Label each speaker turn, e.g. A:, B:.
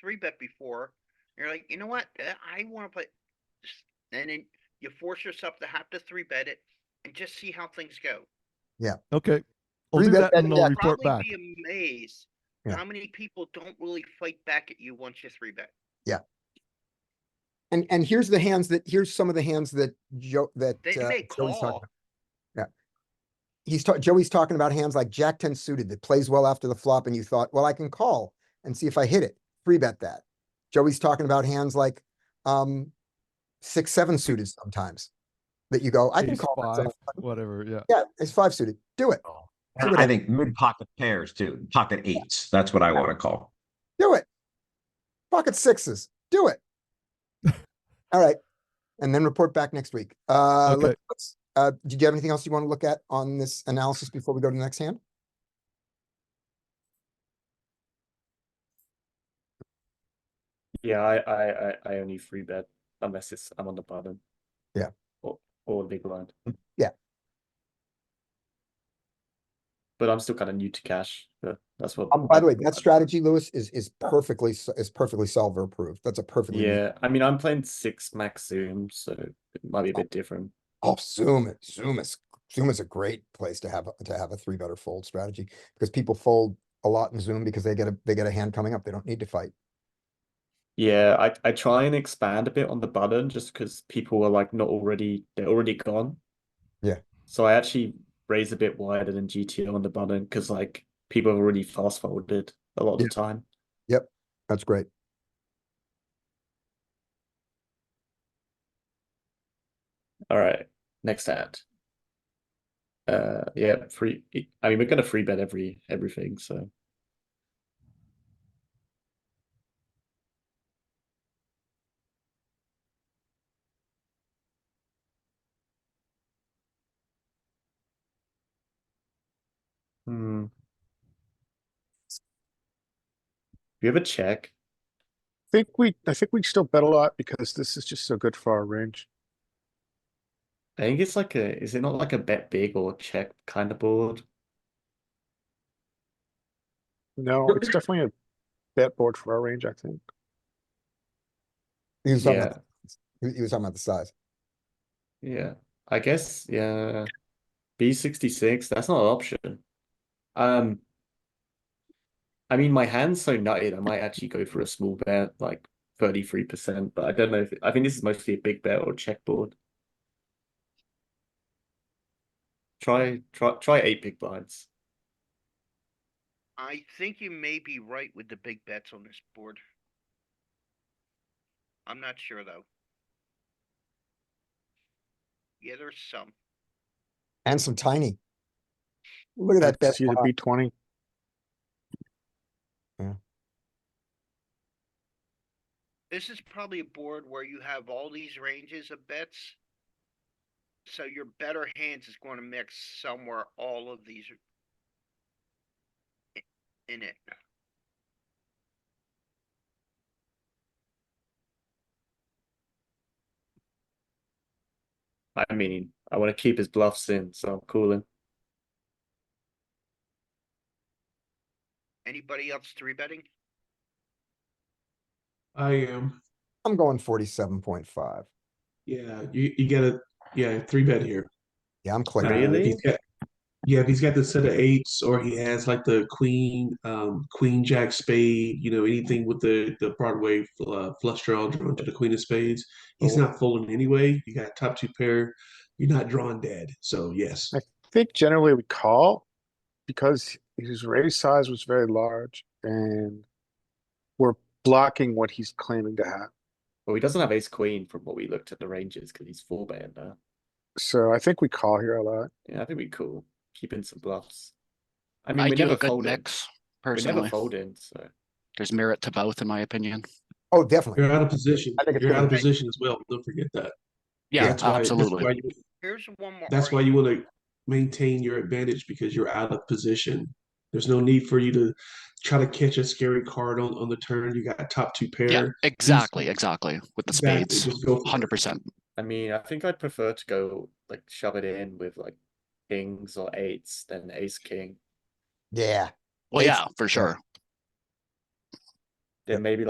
A: three bet before. You're like, you know what? Uh, I want to play, s- and then you force yourself to have to three bet it and just see how things go.
B: Okay. I'll
C: Three
B: do
C: bet
B: that and
C: that
B: I'll
C: deck.
B: report
A: Probably
B: back.
A: be amazed
C: Yeah.
A: how many people don't really fight back at you once you three bet.
C: And, and here's the hands that, here's some of the hands that Joe, that.
A: They
C: uh,
A: may
C: Joey's talking
A: call.
C: about. He's talking, Joey's talking about hands like Jack ten suited that plays well after the flop and you thought, well, I can call and see if I hit it. Free bet that. Joey's talking about hands like, um, six, seven suited sometimes. That you go, I can
B: Ace
C: call.
B: five, Oh.
C: myself.
B: Whatever, yeah.
C: Yeah, it's five suited. Do it.
D: I
C: Look at
D: I
C: it.
D: think mid pocket pairs too, pocket eights. That's what I want to call.
C: Do it. Pocket sixes. Do it. All right. And then report back next week. Uh,
B: Okay.
C: let- let's, uh, did you have anything else you want to look at on this analysis before we go to the next hand?
E: Yeah, I, I, I, I only free bet unless it's I'm on the bottom.
C: Yeah.
E: Or or big blind.
C: Yeah.
E: But I'm still kind of new to cash. But that's what.
C: Um, by the way,
E: I-
C: that strategy, Lewis, is, is perfectly, s- is perfectly solver approved. That's a perfectly. reasonable-
E: Yeah, I mean, I'm playing six max zoom, so it might be a bit different.
C: Oh, Zoom, it- Zoom is, Zoom is a great place to have, a- to have a three better fold strategy because people fold a lot in Zoom because they get a, they get a hand coming up. They don't need to fight.
E: Yeah, I I try and expand a bit on the button just because people are like not already they're already gone.
C: Yeah.
E: So I actually raise a bit wider than GTO on the button because like people have already fast forwarded a lot of the
C: Yeah.
E: time.
C: That's great.
E: All right, next hand. Uh, yeah, free. I mean, we're gonna free bet every everything. So hmm. We have a check.
F: think we, I think we still bet a lot because this is just so good for our range.
E: I think it's like a. Is it not like a bet big or check kind of board?
F: No, it's definitely a bet board for our range, I think.
C: He was talking
E: Yeah.
C: about, he he was talking about the size.
E: Yeah, I guess yeah. B66, that's not an option. Um I mean my hand's so nutted, I might actually go for a small bet, like 33%, but I don't know if I think this is mostly a big bet or checkboard. Try try try eight big blinds.
A: I think you may be right with the big bets on this board. I'm not sure though. Yeah, there's some.
C: And some tiny. Look at
F: I'd
C: that bet.
F: See the
C: pot.
F: B twenty.
A: This is probably a board where you have all these ranges of bets. So your better hands is going to mix somewhere all of these i- in it.
E: I mean, I want to keep his bluffs in, so I'm calling.
A: Anybody else three betting?
G: I am.
C: I'm going forty-seven point five.
G: Yeah, you, you get a yeah three bet here.
C: Yeah, I'm
G: Uh, if
C: clicking.
E: Really?
G: he's got- yeah, if he's got the set of eights, or he has like the queen, um, queen jack spade. You know, anything with the the Broadway uh, flush draw drawn to the queen of spades. He's
C: Oh.
G: not folding anyway. You got top two pair. You're not drawing dead. So yes,
F: I think generally we call because his raise size was very large and we're blocking what he's claiming to have.
E: Well, he doesn't have ace queen from what we looked at the ranges because he's four betting now.
F: So I think we call here a lot.
E: Yeah, I think we cool. Keeping some bluffs. I mean,
H: I
E: we
H: do
E: never
H: a good
E: fold in.
H: mix
E: We never
H: personally.
E: fold in, so
H: There's merit to both, in my opinion.
C: Oh, definitely.
G: you're out of position.
C: I think it's
G: You're out of
C: gonna-
G: position as well. Don't forget that.
H: Yeah,
G: that's why- that's why
H: absolutely.
G: you-
A: Here's one more.
G: That's why
A: argument.
G: you want to maintain your advantage because you're out of position. There's no need for you to try to catch a scary card on, on the turn. You got top two pair.
H: Yeah, exactly, exactly. With the
G: Exactly,
H: spades,
G: just go for it.
H: hundred percent.
E: I mean, I think I'd prefer to go like shove it in with like kings or eights than ace king.
C: Yeah.
H: Well,
C: Ace-
H: yeah, for sure.
E: Then maybe like.